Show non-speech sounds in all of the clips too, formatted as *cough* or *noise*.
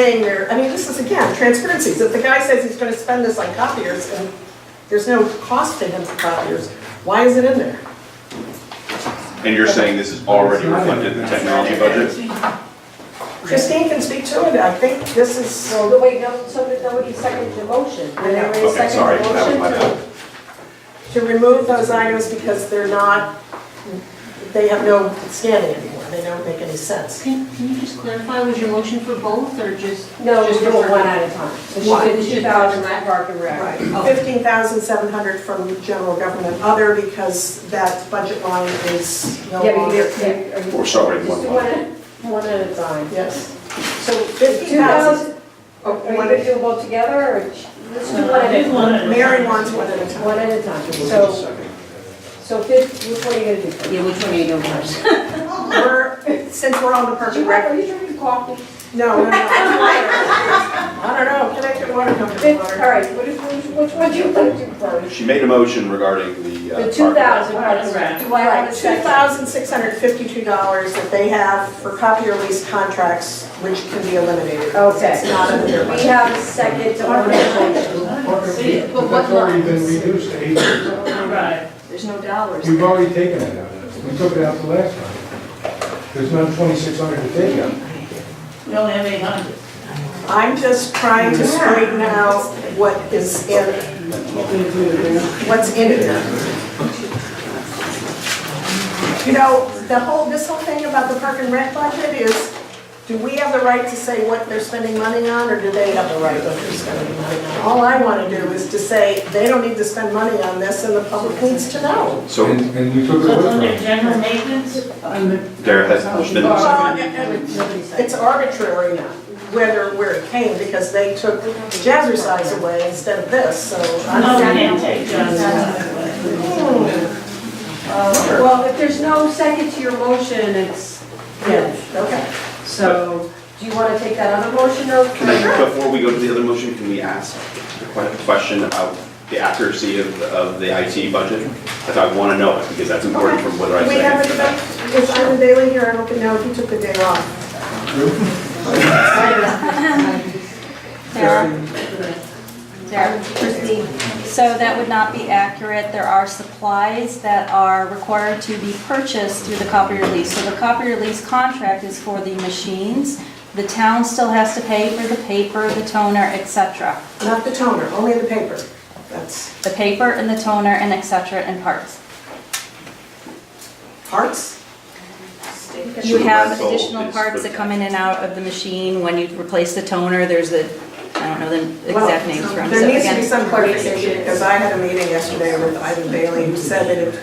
saying there, I mean, this is again, transparency, So if the guy says he's gonna spend this on copiers, and there's no cost to him for copiers, why is it in there? And you're saying this is already reflected in the technology budget? Christine can speak to it, I think this is, No, Oh, no, wait, no, somebody, nobody seconded the motion. Did anybody Okay, second sorry, the that was my motion? bad. to remove those items because they're not, they have no standing anymore, they don't make any sense. Can, can you just clarify, was your motion for both or just? No, just just for do it one at a time. So One. she did two thousand, that Park and Rec. Okay. Fifteen thousand seven hundred from general government other, because that budget line is no Yeah, but longer. you did, are you? Or sorry, Just one do one line. at, one at a time. Yes. So Fifteen two thousand, thousand, Oh, are you gonna do them both together or? ch- Let's Uh, do one at a time. Mary wants one at a time. One at a time. So, so fifth, which one are you gonna do first? Yeah, which one are you doing first? We're, *laughs* since we're on the Do perfect you want- record, Are you drinking *laughs* coffee? no, no, no. *laughs* I don't know, can I get water company Fifth, all water? right, what is, which one do you want to do first? She made a motion regarding the. uh, The two thousand Park Park and and Rec. Rec. Do I have a Two second? thousand six hundred fifty-two dollars that they have for copier lease contracts, which can be eliminated. Okay. It's not under their We budget. have a second to order motion. But what That's already been reduced to eight percent. Right. There's no dollars. We've already taken it out. We took it out the last time. There's not twenty-six hundred to take out. We only have eight hundred. I'm just trying to straighten out what is in, what's in it. You know, the whole, this whole thing about the park and rent budget is, do we have the right to say what they're spending money on, or do they have the right what they're spending money on? All I want to do is to say, they don't need to spend money on this, and the public needs to know. So And, and you took it So it's away under from general maintenance? there has been no second. Well, and- and It's arbitrary now, whether, where it came, because they took jazzercise away instead of this, so. I'm- No, we can't take John's. Uh, Well, if there's no second to your motion, it's, yeah, Okay. so, do you want to take that other motion though? Can I, before we go to the other motion, can we ask a que- question about the accuracy of, of the IT budget? Because I want to know it, because that's important from whether I We have it second or about, not. is Ivan Bailey here? I don't know if he took the day off. *laughs* Sarah? Sarah, Christine. So that would not be accurate. There are supplies that are required to be purchased through the copier lease. So the copier lease contract is for the machines. The town still has to pay for the paper, the toner, et cetera. Not the toner, only the paper. That's The paper and the toner and et cetera and parts. parts? You have Rental additional is parts for- that come in and out of the machine. When you replace the toner, there's a, I don't know the exact names for Well, them. There So needs to again- be some clarification, because I had a meeting yesterday with Ivan Bailey, who said that if,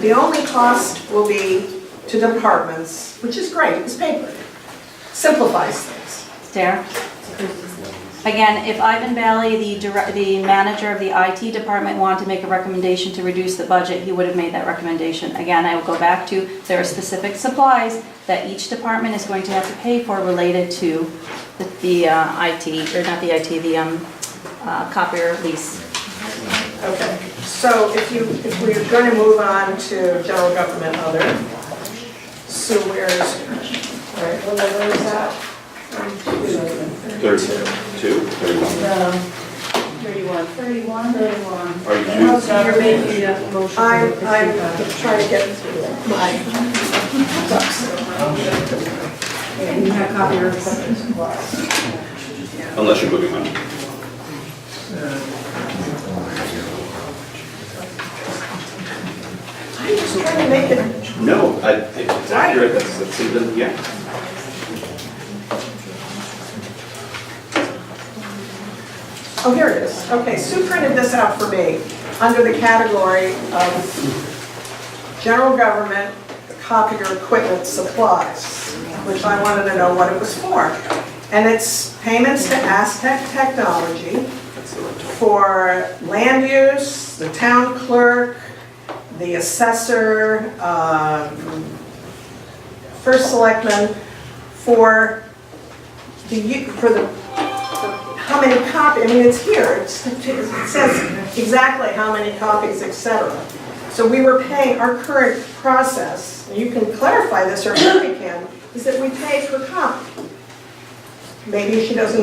the only cost will be to departments, which is great, it's paper. Simplifies things. Sarah? Again, if Ivan Bailey, the direct, the manager of the IT department, wanted to make a recommendation to reduce the budget, he would have made that recommendation. Again, I will go back to, there are specific supplies that each department is going to have to pay for related to the- the uh, IT, or not the IT, the um, uh, copier lease. Okay, so if you, if we're going to move on to general government other, so where's, all right, what number is that? Thirty-two, thirty-one. Thirty-one. Thirty-one, thirty-one. Are you, So you're making that motion. I'm, I'm trying to get my ducks in a row. You have copy of supplies. unless you're moving on. I'm just trying to make it, No, I, it's accurate, that's, that's, it, yeah. oh, here it is. Okay, Sue printed this out for me, under the category of general government copier equipment supplies, which I wanted to know what it was for. And it's payments to Aztec Technology for land use, the town clerk, the assessor, um, first selectman, for the, u- for the, how many copies, I mean, it's here, it's- it says exactly how many copies, et cetera. So we were paying, our current process, and you can clarify this or Mary can, is that we pay per copy. maybe she doesn't